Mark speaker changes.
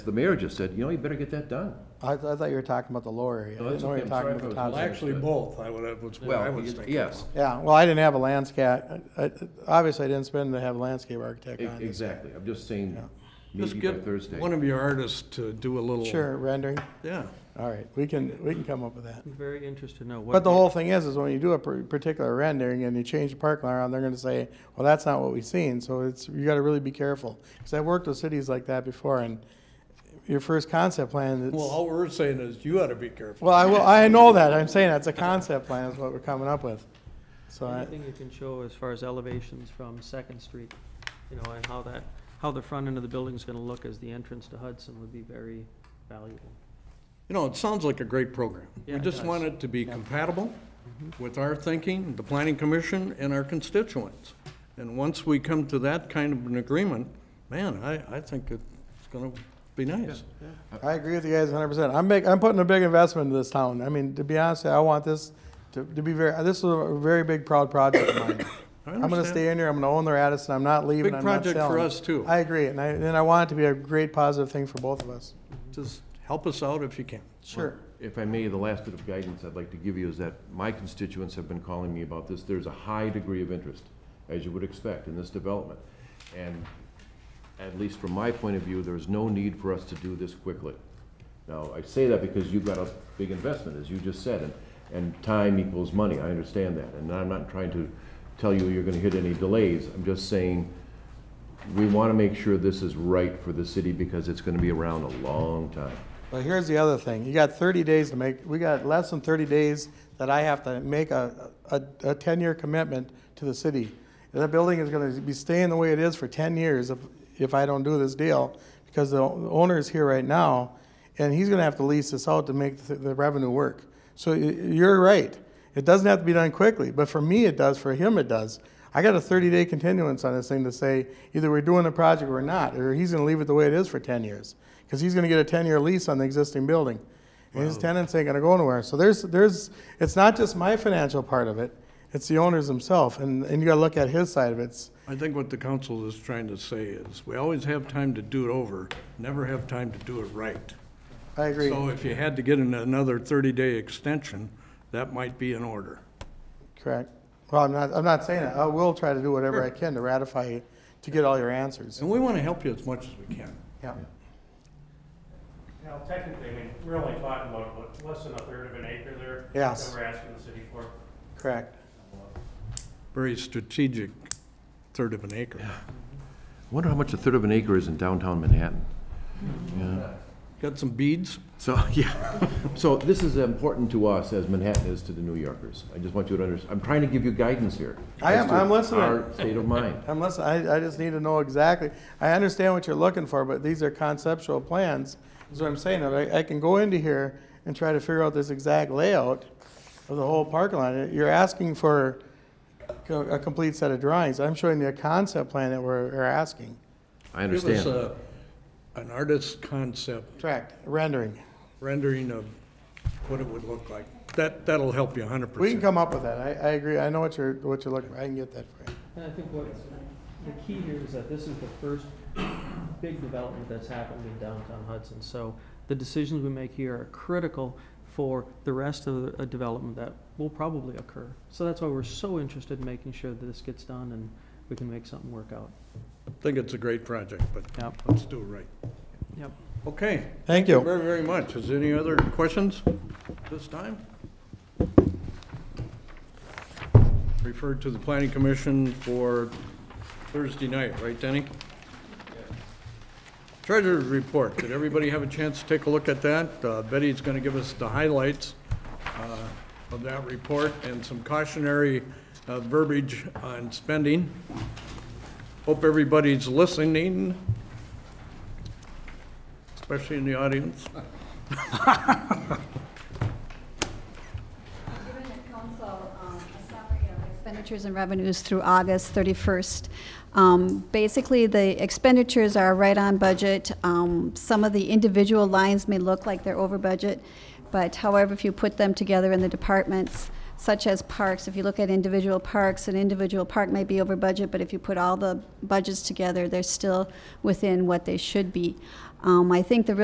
Speaker 1: The mayor just said, you know, you better get that done.
Speaker 2: I, I thought you were talking about the lower area.
Speaker 1: No,
Speaker 2: I
Speaker 1: Oh, that's
Speaker 2: didn't know you
Speaker 1: okay.
Speaker 2: were
Speaker 1: I'm
Speaker 2: talking
Speaker 1: sorry
Speaker 2: about
Speaker 1: if
Speaker 2: the
Speaker 1: I was
Speaker 2: top.
Speaker 3: Well, actually, both, I would, that's what I
Speaker 1: Well,
Speaker 3: was thinking.
Speaker 1: yes,
Speaker 2: Yeah, well, I didn't have a landscape, I- I- obviously I didn't spend to have a landscape architect
Speaker 1: e-
Speaker 2: on this.
Speaker 1: exactly. I'm just saying,
Speaker 3: Just
Speaker 1: maybe by
Speaker 3: get
Speaker 1: Thursday.
Speaker 3: one of your artists to do a little.
Speaker 2: Sure, rendering,
Speaker 3: Yeah.
Speaker 2: all right, we can, we can come up with that.
Speaker 4: I'm very interested to know what.
Speaker 2: But the whole thing is, is when you do a par- particular rendering and you change the parking lot around, they're gonna say, well, that's not what we've seen, so it's, you gotta really be careful. Cause I've worked with cities like that before, and your first concept plan, it's.
Speaker 3: Well, all we're saying is you ought to be careful.
Speaker 2: Well, I will, I know that, I'm saying that's a concept plan is what we're coming up with. So I,
Speaker 4: Anything you can show as far as elevations from Second Street, you know, and how that, how the front end of the building's gonna look as the entrance to Hudson would be very valuable.
Speaker 3: You know, it sounds like a great program.
Speaker 4: Yeah,
Speaker 3: We
Speaker 4: it
Speaker 3: just
Speaker 4: does.
Speaker 3: want it to be compatible with our thinking, the planning commission, and our constituents. And once we come to that kind of an agreement, man, I, I think it's gonna be nice.
Speaker 2: I agree with you guys hundred percent. I'm make, I'm putting a big investment into this town. I mean, to be honest, I want this to, to be very, this is a very big proud project of mine.
Speaker 3: I
Speaker 2: I'm gonna
Speaker 3: understand.
Speaker 2: stay in here, I'm gonna own the Radisson, I'm not leaving,
Speaker 3: Big
Speaker 2: I'm not
Speaker 3: project for
Speaker 2: selling.
Speaker 3: us, too.
Speaker 2: I agree, and I, and I want it to be a great positive thing for both of us.
Speaker 3: Just help us out if you can.
Speaker 2: Sure.
Speaker 1: If I may, the last bit of guidance I'd like to give you is that my constituents have been calling me about this. There's a high degree of interest, as you would expect, in this development. And at least from my point of view, there's no need for us to do this quickly. Now, I say that because you've got a big investment, as you just said, and, and time equals money. I understand that. And I'm not trying to tell you you're gonna hit any delays. I'm just saying, we wanna make sure this is right for the city because it's gonna be around a long time.
Speaker 2: But here's the other thing, you got thirty days to make, we got less than thirty days that I have to make a, a, a ten-year commitment to the city. And That building is gonna be staying the way it is for ten years if, if I don't do this deal, because the owner is here right now, and he's gonna have to lease this out to make the, the revenue work. So y- you're right, it doesn't have to be done quickly, but for me it does, for him it does. I got a thirty-day continuance on this thing to say, either we're doing the project or not, or he's gonna leave it the way it is for ten years because he's going to get a 10-year lease on the existing building. And his tenants ain't going to go nowhere. So there's, there's, it's not just my financial part of it, it's the owners themselves. And, and you got to look at his side of it. It's-
Speaker 3: I think what the council is trying to say is, we always have time to do it over, never have time to do it right.
Speaker 2: I agree.
Speaker 3: So if you had to get an- another 30-day extension, that might be in order.
Speaker 2: Correct. Well, I'm not, I'm not saying it. I will try to do whatever I can to ratify you, to get all your answers.
Speaker 3: And we want to help you as much as we can.
Speaker 2: Yeah.
Speaker 5: Now, technically, I mean, we're only talking about what, less than a third of an acre there.
Speaker 2: Yes.
Speaker 5: That we're asking the city for.
Speaker 2: Correct.
Speaker 3: Very strategic third of an acre.
Speaker 1: Wonder how much a third of an acre is in downtown Manhattan?
Speaker 3: Got some beads?
Speaker 1: So, yeah, so this is important to us as Manhattan is to the New Yorkers. I just want you to under, I'm trying to give you guidance here.
Speaker 2: I am-
Speaker 1: as to
Speaker 2: I'm listening.
Speaker 1: Our state of mind.
Speaker 2: Unless, I, I just need to know exactly, I understand what you're looking for, but these are conceptual plans, is what I'm saying. I, I can go into here and try to figure out this exact layout of the whole parking lot. You're asking for co- a complete set of drawings. I'm showing you a concept plan that we're, we're asking.
Speaker 1: I
Speaker 3: Give us
Speaker 1: understand.
Speaker 3: a- an artist's concept
Speaker 2: Correct, rendering.
Speaker 3: rendering of what it would look like. That, that'll help you 100%.
Speaker 2: We can come up with that. I, I agree. I know what you're, what you're looking for. I can get that for you.
Speaker 4: And I think what's, the key here is that this is the first big development that's happened in downtown Hudson. So the decisions we make here are critical for the rest of the a development that will probably occur. So that's why we're so interested in making sure that this gets done and we can make something work out.
Speaker 3: Think it's a great project, but
Speaker 4: Yep.
Speaker 3: let's do it right.
Speaker 4: Yep.
Speaker 3: Okay.
Speaker 2: Thank you.
Speaker 3: Very, very much. Is there any other questions this time? Referred to the planning commission for Thursday night, right, Denny? Treasurer's report. Did everybody have a chance to take a look at that? Uh, Betty's going to give us the highlights uh, of that report and some cautionary uh, verbiage on spending. Hope everybody's listening, especially in the audience.
Speaker 6: Given the council um, a summary of expenditures and revenues through August 31st. Um, Basically, the expenditures are right on budget. Um, Some of the individual lines may look like they're over budget, but however, if you put them together in the departments, such as parks, if you look at individual parks, an individual park may be over budget, but if you put all the budgets together, they're still within what they should be. Um, I think the real